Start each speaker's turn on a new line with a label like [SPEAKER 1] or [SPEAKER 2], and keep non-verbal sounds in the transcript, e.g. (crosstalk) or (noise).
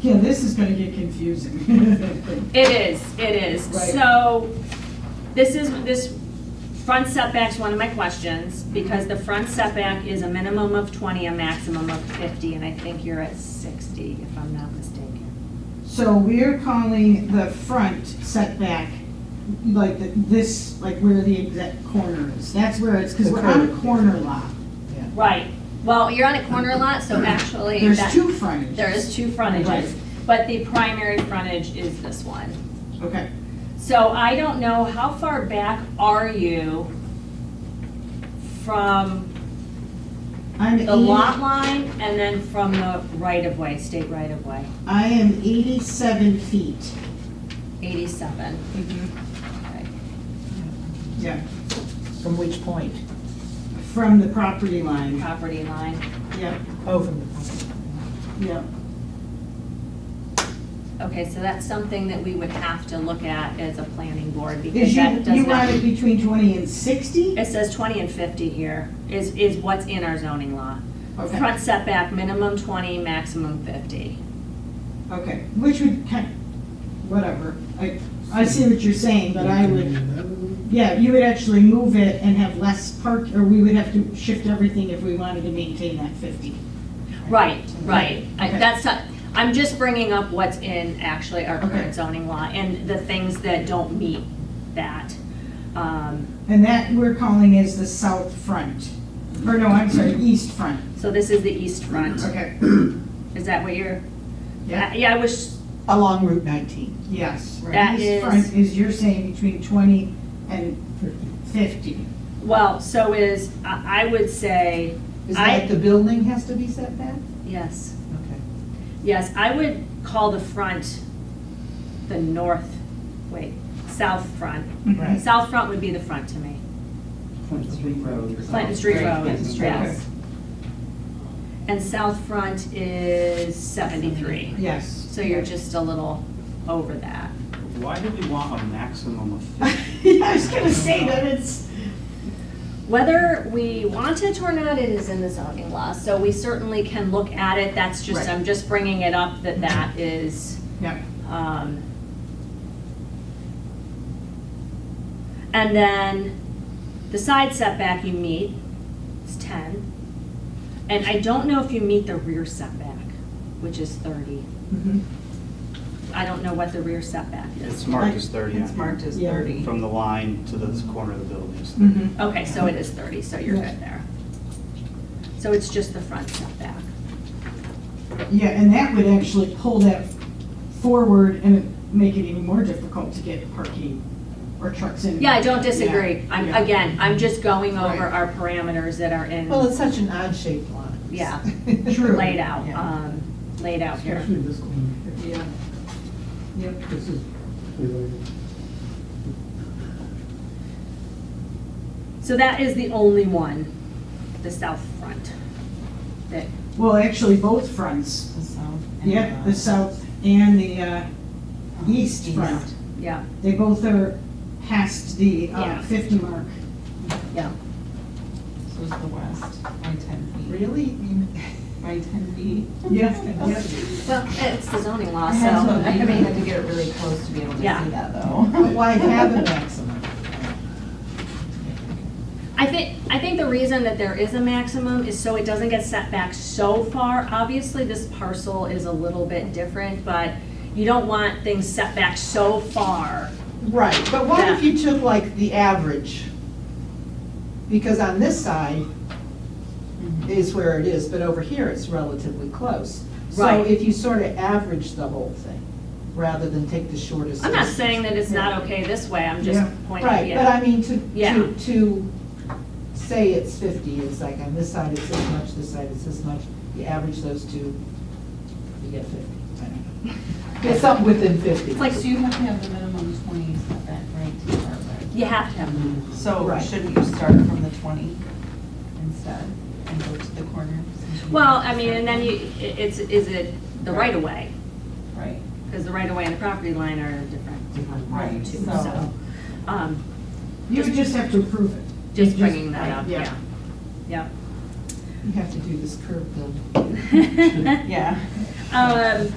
[SPEAKER 1] Yeah, this is gonna get confusing. (laughs)
[SPEAKER 2] It is, it is.
[SPEAKER 1] Right.
[SPEAKER 2] So, this is, this front setback's one of my questions, because the front setback is a minimum of 20, a maximum of 50, and I think you're at 60, if I'm not mistaken.
[SPEAKER 1] So we're calling the front setback, like the- this, like where the exact corner is. That's where it's, because we're on a corner lot.
[SPEAKER 2] Right. Well, you're on a corner lot, so actually,
[SPEAKER 1] There's
[SPEAKER 2] that-
[SPEAKER 1] two frontages.
[SPEAKER 2] there is two
[SPEAKER 1] Right.
[SPEAKER 2] frontages, but the primary frontage is this one.
[SPEAKER 1] Okay.
[SPEAKER 2] So I don't know, how far back are you from
[SPEAKER 1] I'm
[SPEAKER 2] the
[SPEAKER 1] 80
[SPEAKER 2] lot line and then from the right-of-way, state right-of-way?
[SPEAKER 1] I am 87 feet.
[SPEAKER 2] 87. Okay.
[SPEAKER 1] Yeah.
[SPEAKER 3] From which point?
[SPEAKER 1] From the property line.
[SPEAKER 2] Property line.
[SPEAKER 1] Yep,
[SPEAKER 3] Oh, from the point.
[SPEAKER 1] yep.
[SPEAKER 2] Okay, so that's something that we would have to look at as a planning board because
[SPEAKER 1] Is you,
[SPEAKER 2] that
[SPEAKER 1] you
[SPEAKER 2] does
[SPEAKER 1] want it
[SPEAKER 2] not.
[SPEAKER 1] between 20 and 60?
[SPEAKER 2] It says 20 and 50 here is, is what's in our zoning law.
[SPEAKER 1] Okay,
[SPEAKER 2] Front setback, minimum 20, maximum 50.
[SPEAKER 1] okay, which would kind, whatever. I, I see what you're saying, but I would, yeah, you would actually move it and have less park, or we would have to shift everything if we wanted to maintain that 50.
[SPEAKER 2] Right, right. I-
[SPEAKER 1] Okay.
[SPEAKER 2] That's not, I'm just bringing up what's in actually our
[SPEAKER 1] Okay.
[SPEAKER 2] current zoning law and the things that don't meet that. Um,
[SPEAKER 1] And that we're calling is the south front. Or no, I'm sorry, east front.
[SPEAKER 2] So this is the east front.
[SPEAKER 1] Okay,
[SPEAKER 2] Is that what you're?
[SPEAKER 1] Yeah.
[SPEAKER 2] Yeah, I wish
[SPEAKER 3] Along Route 19.
[SPEAKER 1] yes. right.
[SPEAKER 2] That
[SPEAKER 1] East
[SPEAKER 2] is-
[SPEAKER 1] front is, you're saying between 20 and 50.
[SPEAKER 2] Well, so is, I I would say,
[SPEAKER 3] Is
[SPEAKER 2] I-
[SPEAKER 3] that the building has to be set back?
[SPEAKER 2] yes,
[SPEAKER 3] Okay.
[SPEAKER 2] yes, I would call the front the north, wait, south front.
[SPEAKER 3] Right.
[SPEAKER 2] South front would be the front to me.
[SPEAKER 4] Clinton Street Road.
[SPEAKER 2] Clinton Street Road,
[SPEAKER 4] Clinton Street
[SPEAKER 2] yes. And south front is 73.
[SPEAKER 1] Yes.
[SPEAKER 2] So you're just a little over that.
[SPEAKER 4] Road. Why do we want a maximum of fifty?
[SPEAKER 1] (laughs)
[SPEAKER 4] (laughs)
[SPEAKER 1] Yeah, I was gonna say that it's,
[SPEAKER 2] Whether we want it or not, it is in the zoning law, so we certainly can look at it. That's just,
[SPEAKER 1] Right.
[SPEAKER 2] I'm just bringing it up that that is.
[SPEAKER 1] yeah,
[SPEAKER 2] Um, And then the side setback you meet is 10. And I don't know if you meet the rear setback, which is 30.
[SPEAKER 1] Mm-hmm.
[SPEAKER 2] I don't know what the rear setback is.
[SPEAKER 4] It's marked as thirty.
[SPEAKER 5] It's marked as
[SPEAKER 1] Yeah.
[SPEAKER 5] 30.
[SPEAKER 4] From the line to the corner of the buildings.
[SPEAKER 2] Mm-hmm.
[SPEAKER 1] Mm-hmm.
[SPEAKER 2] Okay, so it is 30, so you're
[SPEAKER 1] Yes.
[SPEAKER 2] good there. So it's just the front setback.
[SPEAKER 1] yeah, and that would actually pull that forward and make it even more difficult to get parking or trucks in.
[SPEAKER 2] Yeah, I don't disagree.
[SPEAKER 1] Yeah,
[SPEAKER 2] I'm,
[SPEAKER 1] yeah.
[SPEAKER 2] again, I'm just going over
[SPEAKER 1] Right.
[SPEAKER 2] our parameters that are in,
[SPEAKER 3] Well, it's such an odd-shaped lot.
[SPEAKER 2] Yeah.
[SPEAKER 1] (laughs) True.
[SPEAKER 2] laid out,
[SPEAKER 3] Yeah.
[SPEAKER 2] um, laid out here.
[SPEAKER 6] Especially this one,
[SPEAKER 1] Yeah. Yep,
[SPEAKER 6] this is related.
[SPEAKER 2] So that is the only one, the south front, that,
[SPEAKER 1] well, actually, both fronts,
[SPEAKER 3] The south and uh,
[SPEAKER 1] yeah, the south and the uh, east front.
[SPEAKER 2] yeah,
[SPEAKER 1] They both are past the uh,
[SPEAKER 2] Yeah.
[SPEAKER 1] 50 mark.
[SPEAKER 2] yeah.
[SPEAKER 5] So is the west by 10 feet.
[SPEAKER 3] Really? You mean-
[SPEAKER 5] By 10 feet.
[SPEAKER 1] Yeah, yeah.
[SPEAKER 2] Well, it's the zoning law,
[SPEAKER 5] I
[SPEAKER 2] so,
[SPEAKER 5] had to, I
[SPEAKER 2] (laughs) I
[SPEAKER 5] had
[SPEAKER 2] mean,
[SPEAKER 5] to get it really close to be able to see
[SPEAKER 2] Yeah.
[SPEAKER 5] that
[SPEAKER 3] But
[SPEAKER 5] though.
[SPEAKER 3] Why have
[SPEAKER 1] (laughs)
[SPEAKER 3] a maximum?
[SPEAKER 2] I think, I think the reason that there is a maximum is so it doesn't get set back so far. Obviously, this parcel is a little bit different, but you don't want things set back so far.
[SPEAKER 3] Right, but what if you took like the average? Because on this side
[SPEAKER 2] Mm-hmm.
[SPEAKER 3] is where it is, but over here it's relatively close. So
[SPEAKER 2] Right.
[SPEAKER 3] if you sort of average the whole thing, rather than take the shortest.
[SPEAKER 2] I'm not
[SPEAKER 3] distance.
[SPEAKER 2] saying that it's not okay this way, I'm just
[SPEAKER 1] Yeah.
[SPEAKER 2] pointing,
[SPEAKER 3] Right, but
[SPEAKER 2] yeah.
[SPEAKER 3] I mean, to,
[SPEAKER 2] Yeah.
[SPEAKER 3] to, to say it's fifty, it's like on this side it's this much, this side it's this much, you average those two, you get fifty. I don't know. (laughs) Get something within fifty.
[SPEAKER 2] It's like,
[SPEAKER 5] So you have to have the minimum 20 setback, right, to start with?
[SPEAKER 2] you have to have them.
[SPEAKER 5] So
[SPEAKER 3] Right.
[SPEAKER 5] shouldn't you start from the 20 instead and go to the corner? since you
[SPEAKER 2] Well,
[SPEAKER 5] have to
[SPEAKER 2] I mean,
[SPEAKER 5] start-
[SPEAKER 2] and then you, it- it's, is it the right of way?
[SPEAKER 5] Right.
[SPEAKER 2] Because the right of way and the property line are different. different
[SPEAKER 5] Right,
[SPEAKER 2] line too,
[SPEAKER 5] so-
[SPEAKER 2] So, um,
[SPEAKER 1] You would just have to approve it.
[SPEAKER 2] just bringing that up,
[SPEAKER 1] yeah.
[SPEAKER 2] yeah. Yep.
[SPEAKER 3] You have to do this curve build.
[SPEAKER 5] (laughs) Yeah.
[SPEAKER 2] (laughs) Um,